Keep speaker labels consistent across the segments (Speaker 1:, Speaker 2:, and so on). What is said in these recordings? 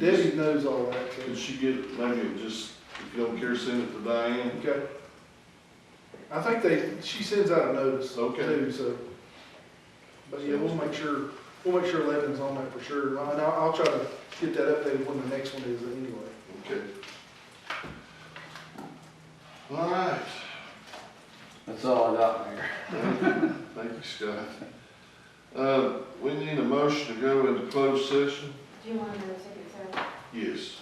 Speaker 1: Debbie knows all that, so,
Speaker 2: Could she get, maybe just, if you don't care, send it to Diane?
Speaker 1: okay. I think they, she sends out a notice
Speaker 2: Okay.
Speaker 1: too, so. But yeah, we'll make sure, we'll make sure Levin's on that for sure, and I'll, I'll try to get that updated when the next one is anyway.
Speaker 2: Okay. All right,
Speaker 3: That's all I got, Mayor.
Speaker 2: thank you, Scott. Uh, we need a motion to go into closed session?
Speaker 4: Do you want to know ticket sales?
Speaker 2: Yes,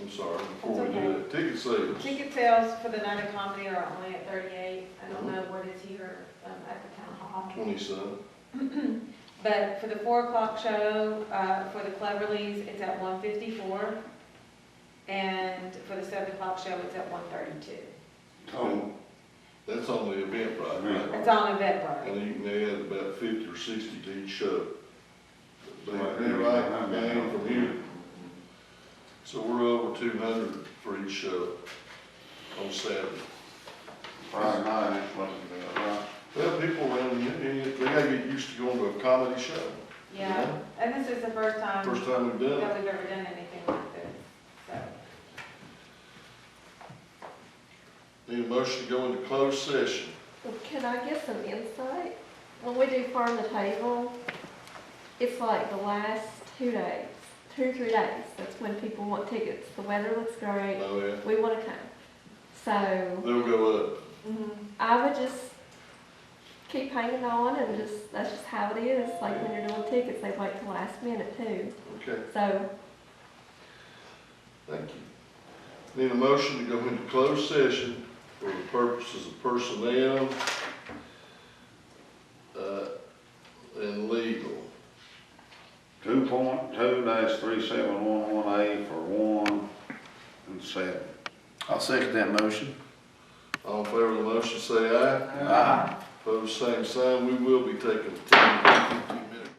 Speaker 2: I'm sorry, before we do that, ticket sales.
Speaker 4: Ticket sales for the night of comedy are only at thirty-eight. I don't know what is here um, at the town hall.
Speaker 2: Twenty-seven,
Speaker 4: But for the four o'clock show, uh, for the Cleverleys, it's at one fifty-four. And for the seven o'clock show, it's at one thirty-two.
Speaker 3: Oh,
Speaker 2: that's on the event right
Speaker 4: It's on Eventbrite.
Speaker 2: And you can add about fifty or sixty to each show. They, they
Speaker 3: Right.
Speaker 2: like the band from here. So we're over two hundred for each show on Saturday.
Speaker 3: Friday night, it's supposed to be, uh, right?
Speaker 2: Well, people around here, they they gotta get used to going to a comedy show.
Speaker 4: Yeah, and this is the first time
Speaker 2: First time we've done it.
Speaker 4: that we've ever done anything like this, so.
Speaker 2: Need a motion to go into closed session.
Speaker 5: Well, Can I get some insight? When we do farm to table, it's like the last two days, two, three days, that's when people want tickets. The weather looks great,
Speaker 2: Oh, yeah.
Speaker 5: we wanna come. So
Speaker 2: They'll go up.
Speaker 4: Mm-hmm.
Speaker 5: I would just keep hanging on and just, that's just how it is. Like when you're doing tickets, they wait till last minute too.
Speaker 2: Okay,
Speaker 5: So
Speaker 2: thank you. Need a motion to go into closed session for the purposes of personnel, uh, and legal.
Speaker 3: Two point two dash three seven one one A for one and seven.
Speaker 6: I'll second that motion.
Speaker 2: All in favor of the motion, say aye.
Speaker 6: Aye.
Speaker 2: Opposed, same sign. We will be taking a 10, 15 minute